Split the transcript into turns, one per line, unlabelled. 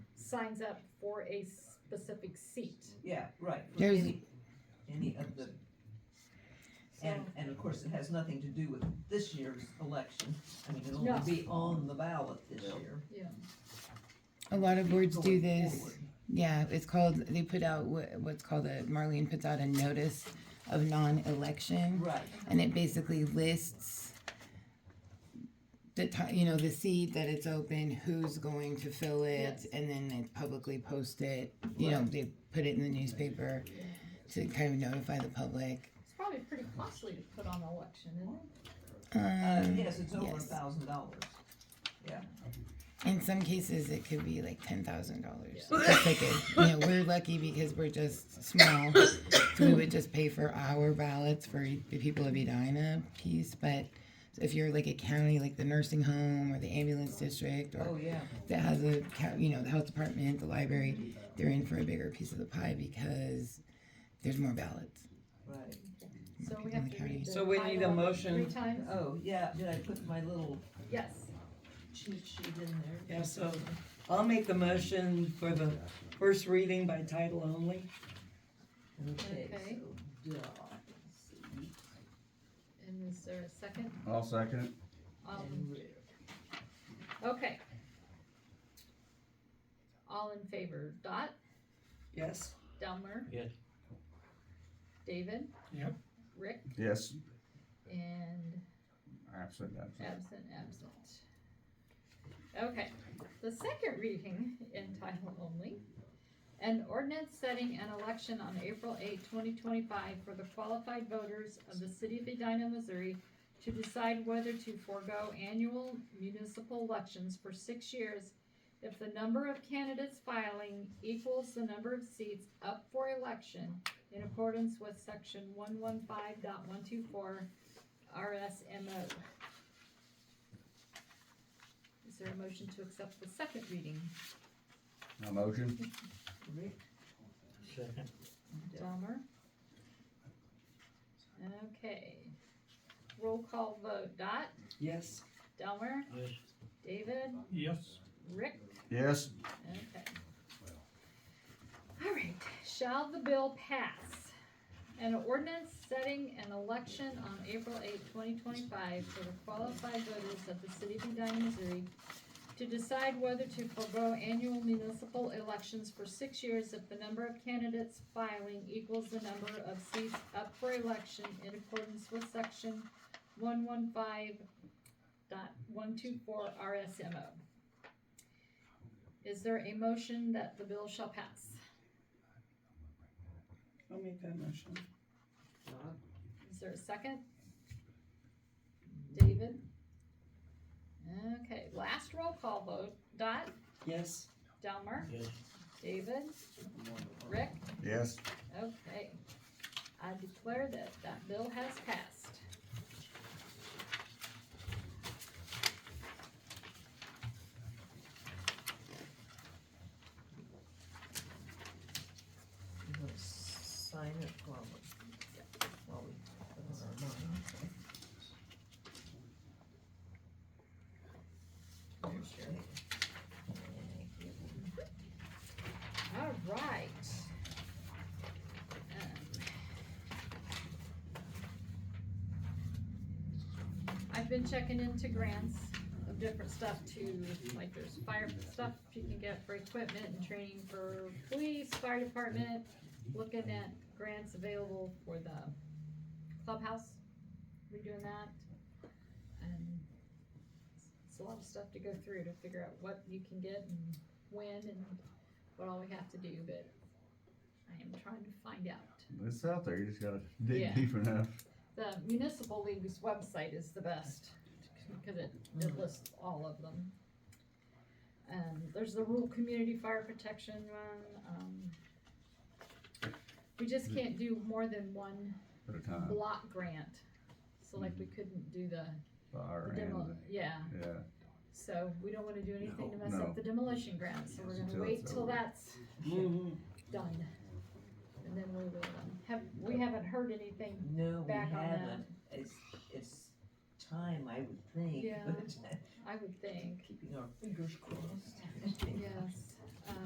signs up for a specific seat.
Yeah, right. for
There's-
Any any of the, and, and of course, it has nothing to do with this year's election. I mean, it'll
No.
only be on the ballot this year.
A lot of boards do
going
this.
forward.
Yeah, it's called, they put out what, what's called a, Marlene puts out a notice of non-election.
Right,
And it basically lists the ti- you know, the seat that it's open, who's going to fill it,
Yes.
and then they publicly post it. You know, they put it in the newspaper to kind of notify the public.
It's probably pretty costly to put on an election, isn't it?
uh,
Um,
yes, it's over a
yes.
thousand dollars.
In some cases, it could be like ten thousand dollars ticket. You know, we're lucky because we're just small, so we would just pay for our ballots for the people of Edina piece. But if you're like a county, like the nursing home or the ambulance district, or
Oh, yeah,
that has a ca- you know the health department, the library, they're in for a bigger piece of the pie because there's more ballots.
right.
So we have to read the.
So we
high
need a
level
motion.
Three times,
Oh, yeah, did I put my little
yes.
cheat sheet in there?
Yeah, so I'll make the motion for the first reading by title only.
Okay,
Okay.
so, duh, let's see,
And is there a second?
I'll second.
Um,
and rare.
okay. All in favor, Dot,
Yes?
Delmer?
Yes.
David?
Yep.
Rick
Yes.
and
Absolutely. absolutely.
Absent, absent. Okay, the second reading in title only. An ordinance setting an election on April 8, twenty twenty-five for the qualified voters of the city of Edina, Missouri to decide whether to forego annual municipal elections for six years if the number of candidates filing equals the number of seats up for election in accordance with section 115.124 RSMO. Is there a motion to accept the second reading?
A motion?
Rick,
Second.
Delmer? Okay. Roll call vote. Dot,
Yes?
Delmer,
Yes.
David,
Yes.
Rick?
Yes.
Okay. All right, shall the bill pass? An ordinance setting an election on April 8, twenty twenty-five for the qualified voters of the city of Edina, Missouri to decide whether to forego annual municipal elections for six years if the number of candidates filing equals the number of seats up for election in accordance with section one one five dot one two four RSMO. Is there a motion that the bill shall pass?
I'll make that motion.
Is there a second? David? Okay, last roll call vote. Dot,
Yes?
Delmer,
Yes.
David, Rick?
Yes.
Okay. I declare that that bill has passed.
you wanna sign it while we, while we put it on our mind? Okay.
All right. Um, I've been checking into grants of different stuff too, like there's fire stuff you can get for equipment and training for police, fire department. Looking at grants available for the clubhouse, redoing that. And it's a lot of stuff to go through to figure out what you can get and when and what all we have to do, but I am trying to find out.
It's out there. You just gotta dig
Yeah.
deep enough.
The municipal league's website is the best because it, it lists all of them. Um, there's the rural community fire protection one, um, we just can't do more than one
At a time.
block grant. So like we couldn't do the
Fire
the demo,
and,
yeah,
yeah.
so we don't wanna do anything to mess
No.
up the demolition grant, so we're gonna
Until
wait
it's
till
over.
that's done. And then we will, um, have, we haven't heard anything
No, we
back on that,
haven't. It's, it's time, I would think,
Yeah.
but
I would think,
keeping our fingers crossed.
yes.